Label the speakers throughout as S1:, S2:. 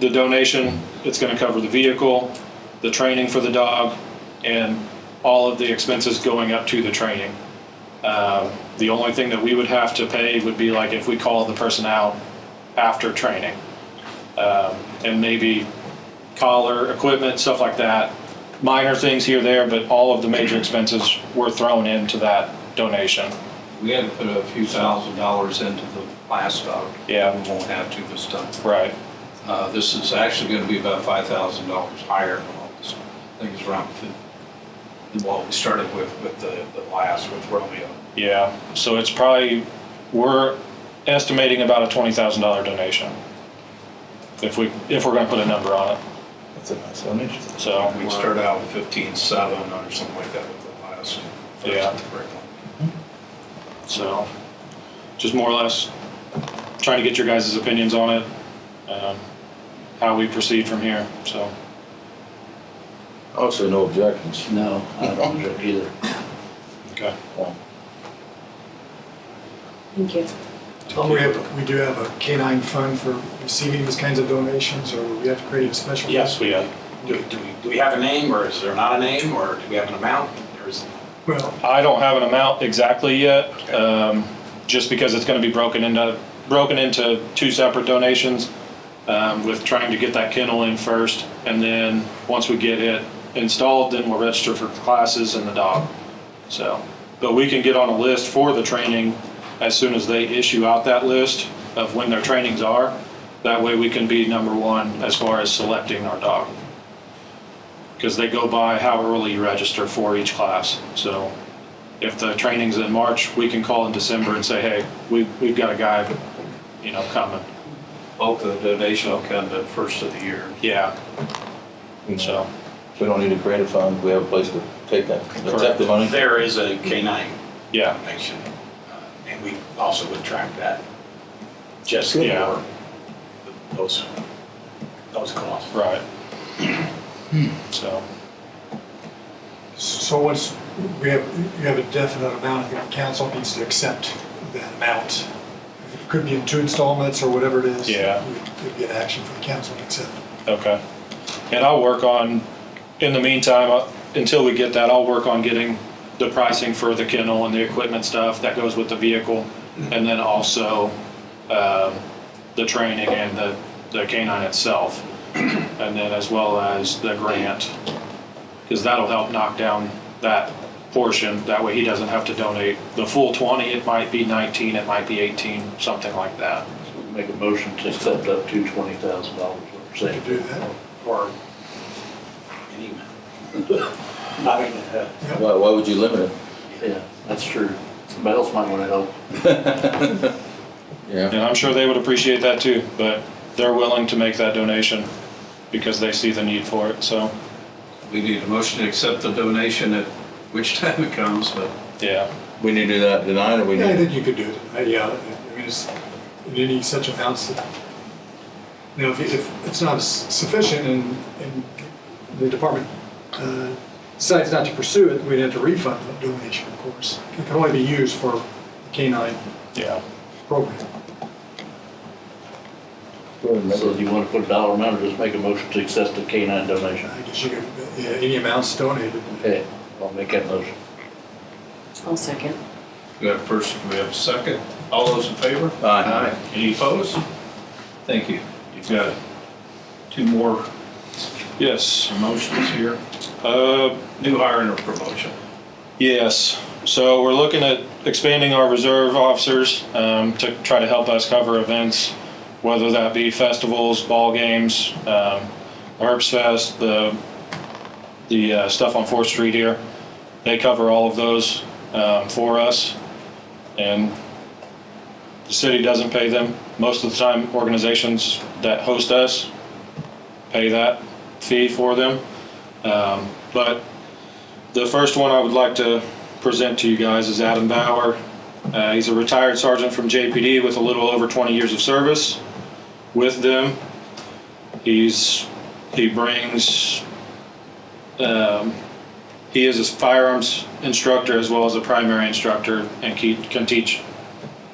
S1: the donation, it's gonna cover the vehicle, the training for the dog, and all of the expenses going up to the training. Um, The only thing that we would have to pay would be like if we call the person out after training. Um, And maybe collar, equipment, stuff like that. Minor things here, there, but all of the major expenses were thrown into that donation.
S2: We had to put a few thousand dollars into the last dog.
S1: Yeah.
S2: We won't have to this time.
S1: Right.
S2: Uh, This is actually gonna be about five thousand dollars higher than all this. I think it's around fifty. Well, we started with, with the, the last with Romeo.
S1: Yeah, so it's probably, we're estimating about a twenty thousand dollar donation. If we, if we're gonna put a number on it,
S3: That's a nice image.
S1: so.
S2: We started out with fifteen-seven or something like that with the last.
S1: Yeah. So, just more or less trying to get your guys' opinions on it, um, how we proceed from here, so.
S3: Also, no objections.
S4: No, I don't drink either.
S1: Okay.
S5: Thank you.
S6: Um, we have, we do have a canine fund for receiving these kinds of donations, or we have to create a special? fund?
S7: Yes, we,
S1: Yeah.
S7: do, do we, do we have a name, or is there not a name, or do we have an amount? Or is,
S6: Well,
S1: I don't have an amount exactly yet, um, just because it's gonna be broken into, broken into two separate donations, um, with trying to get that kennel in first, and then, once we get it installed, then we'll register for classes and the dog, so. But we can get on a list for the training as soon as they issue out that list of when their trainings are. That way, we can be number one as far as selecting our dog. Because they go by how early you register for each class, so if the training's in March, we can call in December and say, hey, we, we've got a guy, you know, coming.
S2: Bulk of the donation will come the first of the year.
S1: Yeah, so,
S3: We don't need to create a fund, we have a place to take that, accept the money.
S7: there is a K-9
S1: yeah,
S7: donation, uh, and we also would track that, just
S1: Good.
S7: for those, those costs.
S1: right. So,
S6: so once, we have, you have a definite amount, the council needs to accept that amount. It could be in two installments or whatever it is.
S1: Yeah.
S6: It'd be an action for the council to accept.
S1: okay. And I'll work on, in the meantime, uh, until we get that, I'll work on getting the pricing for the kennel and the equipment stuff that goes with the vehicle. And then also, um, the training and the, the canine itself. And then as well as the grant. Because that'll help knock down that portion. That way he doesn't have to donate the full twenty. It might be nineteen, it might be eighteen, something like that.
S4: Make a motion to accept up to twenty thousand dollars worth
S6: to
S4: savings.
S6: do that.
S7: Or any amount. I mean, uh,
S3: Why, why would you limit it?
S4: Yeah, that's true. Somebody else might wanna help.
S3: Yeah.
S1: And I'm sure they would appreciate that too, but they're willing to make that donation because they see the need for it, so,
S2: We need a motion to accept the donation at which time it comes, but
S1: yeah.
S3: We need to do that tonight, or we
S6: Yeah, I
S3: need,
S6: think you could do it, Uh, yeah, I mean, it's, in any such amounts that, you know, if, if it's not s- sufficient and, and the department, uh, decides not to pursue it, we'd have to refund the donation, of course. It can only be used for the canine
S1: Yeah.
S6: program.
S4: So do you wanna put a dollar amount or just make a motion to accept the K nine donation?
S6: I guess you could, yeah, any amounts donated.
S4: Okay, I'll make that motion.
S5: I'll second.
S2: we have first, we have second. All those in favor?
S3: Aye.
S2: Any opposed? Thank you. You've got two more
S1: Yes,
S2: promotions here,
S1: uh,
S2: new hire and a promotion.
S1: yes, so we're looking at expanding our reserve officers, um, to try to help us cover events, whether that be festivals, ball games, um, Herbst Fest, the, the, uh, stuff on Fourth Street here. They cover all of those, um, for us. And the city doesn't pay them. Most of the time, organizations that host us pay that fee for them. Um, But the first one I would like to present to you guys is Adam Bauer. Uh, He's a retired sergeant from JPD with a little over 20 years of service with them. He's, he brings, um, he is a firearms instructor as well as a primary instructor and ke- can teach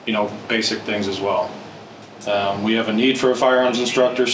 S1: you know, basic things as well. Um, we have a need for a firearms instructor,